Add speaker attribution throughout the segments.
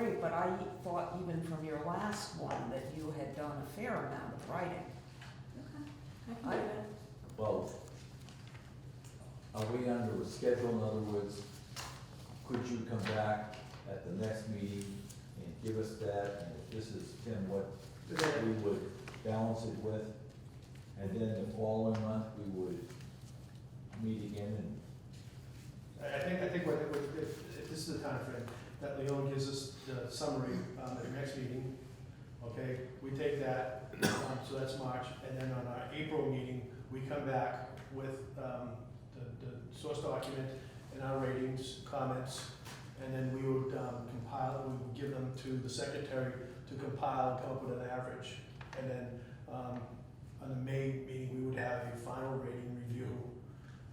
Speaker 1: I thought even from your last one that you had done a fair amount of writing.
Speaker 2: Okay, I
Speaker 1: I-
Speaker 2: can do it.
Speaker 3: Well, are we under a schedule, in other words, could you come back at the next meeting and give us that, and if this is, Tim, what we would balance it with? And then the following month, we would meet again and
Speaker 4: I I think, I think what, it would- if, if this is the timeframe, that Leon gives us the summary, um, at the next meeting, okay? We take that, um, so that's March, and then on our April meeting, we come back with, um, the, the source document and our ratings, comments, and then we would, um, compile, we would give them to the secretary to compile, and come up with an average. And then, um, on the May meeting, we would have a final rating review,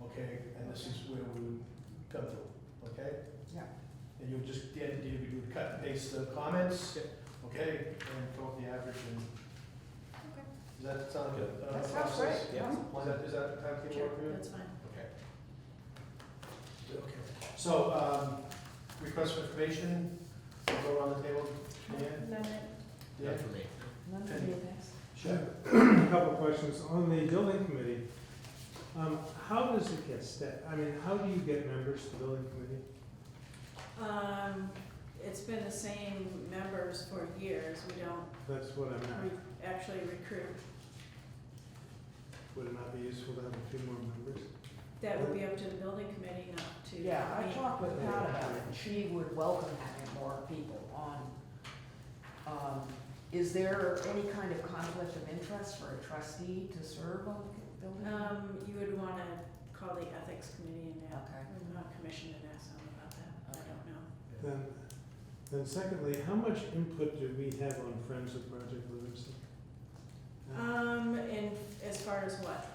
Speaker 4: okay? And this is where we would come through, okay?
Speaker 1: Yeah.
Speaker 4: And you would just, the idea would be you would cut and paste the comments, okay, and come up with the average and.
Speaker 2: Okay.
Speaker 4: Does that sound good? Uh,
Speaker 1: That sounds
Speaker 4: process?
Speaker 1: great, yeah.
Speaker 4: Is that, is that the timetable
Speaker 2: Sure,
Speaker 4: work for you?
Speaker 2: that's fine.
Speaker 4: Okay. Okay, so, um, request for information, I'll go around the table, Dan,
Speaker 2: No, no.
Speaker 4: Dan,
Speaker 5: for me.
Speaker 1: None of you guys?
Speaker 4: sure.
Speaker 6: A Couple of questions. On the building committee, um, how does it get set? I mean, how do you get members to building committee?
Speaker 2: Um, it's been the same members for years, we don't
Speaker 6: That's what I'm at.
Speaker 2: re- actually recruit.
Speaker 6: Would it not be useful to have a few more members?
Speaker 2: That would be up to the building committee, not to.
Speaker 1: Yeah, I
Speaker 2: me.
Speaker 1: talked with Pat about it, and she would welcome having more people on. Um, Is there any kind of conflict of interest for a trustee to serve on the building?
Speaker 2: Um, you would wanna call the ethics committee and that,
Speaker 1: Okay.
Speaker 2: I'm not commissioned to ask them about that, I
Speaker 1: Okay.
Speaker 2: don't know.
Speaker 6: Then, then secondly, how much input do we have on Friends of Project Livingston? Uh,
Speaker 2: Um, and as far as what?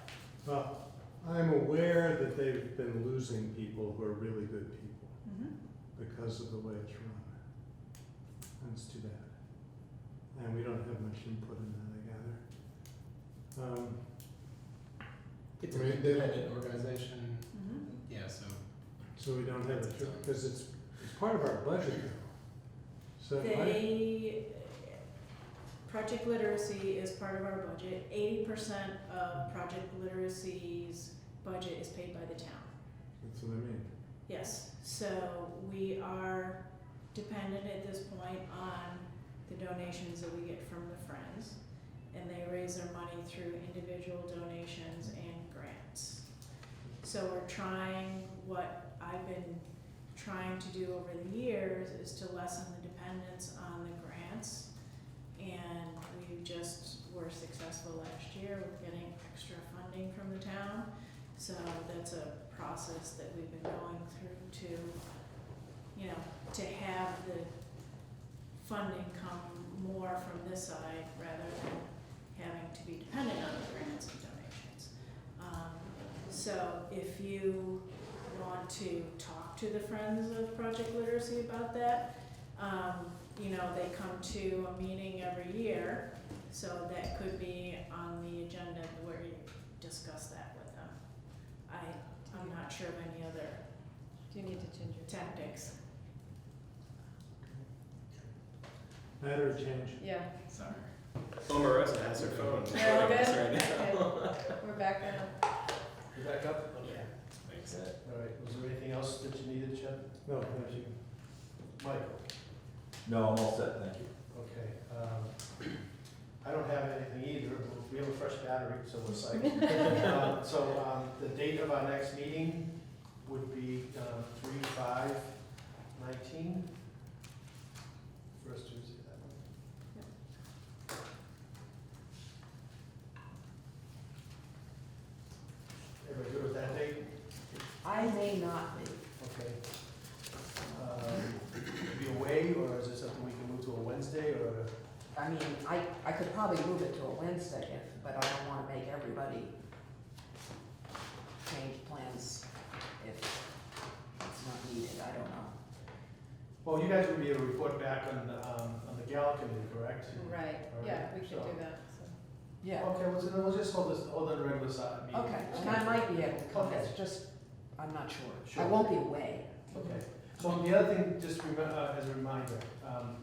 Speaker 6: Well, I'm aware that they've been losing people who are really good people
Speaker 1: Mm-hmm.
Speaker 6: because of the way it's run. And it's too bad. And we don't have much input in that, I gather. Um,
Speaker 5: It's an
Speaker 6: Right.
Speaker 5: independent organization,
Speaker 2: Mm-hmm.
Speaker 5: yeah, so
Speaker 6: So we don't have it, because it's, it's part of our budget now. So I,
Speaker 2: They, project literacy is part of our budget, eighty percent of project literacy's budget is paid by the town.
Speaker 6: that's what I mean.
Speaker 2: Yes, so we are dependent at this point on the donations that we get from the Friends. And they raise their money through individual donations and grants. So we're trying, what I've been trying to do over the years is to lessen the dependence on the grants. And we just were successful last year with getting extra funding from the town. So that's a process that we've been going through to, you know, to have the funding come more from this side rather than having to be dependent on the grants and donations. Um, so if you want to talk to the Friends of Project Literacy about that, um, you know, they come to a meeting every year, so that could be on the agenda where you discuss that with them. I, I'm not sure of any other
Speaker 7: Do you need to change your?
Speaker 2: tactics.
Speaker 6: Matter of change.
Speaker 7: Yeah,
Speaker 5: sorry.
Speaker 8: Omarosa has her phone.
Speaker 7: Yeah,
Speaker 8: recording us
Speaker 7: okay.
Speaker 8: right now.
Speaker 7: okay, we're back now.
Speaker 4: You back up? Okay.
Speaker 8: Thanks.
Speaker 3: that
Speaker 4: All right, was there anything else that you needed, Chad?
Speaker 6: No, thank you.
Speaker 4: Michael,
Speaker 3: No, I'm all set, thank you.
Speaker 4: okay, um, I don't have anything either, but we have a fresh battery, so we're psyched. Um, So um, the date of our next meeting would be um, three, five, nineteen. First Tuesday, that one. Everybody good with that date?
Speaker 1: I may not be.
Speaker 4: Okay. Um, Be away, or is it something we can move to a Wednesday, or?
Speaker 1: I mean, I, I could probably move it to a Wednesday, if- but I don't wanna make everybody change plans if it's not needed, I don't know.
Speaker 4: Well, you guys would be able to report back on, the, um, on the gal committee, correct?
Speaker 7: Right, yeah, we could do
Speaker 4: Alright,
Speaker 7: that, so.
Speaker 1: Yeah,
Speaker 4: Okay, well, so then we'll just hold this, hold on regular side meeting.
Speaker 1: okay, and I might be able to come, it's just, I'm not sure. I won't be away.
Speaker 4: Okay, so the other thing, just remem- uh, as a reminder, um,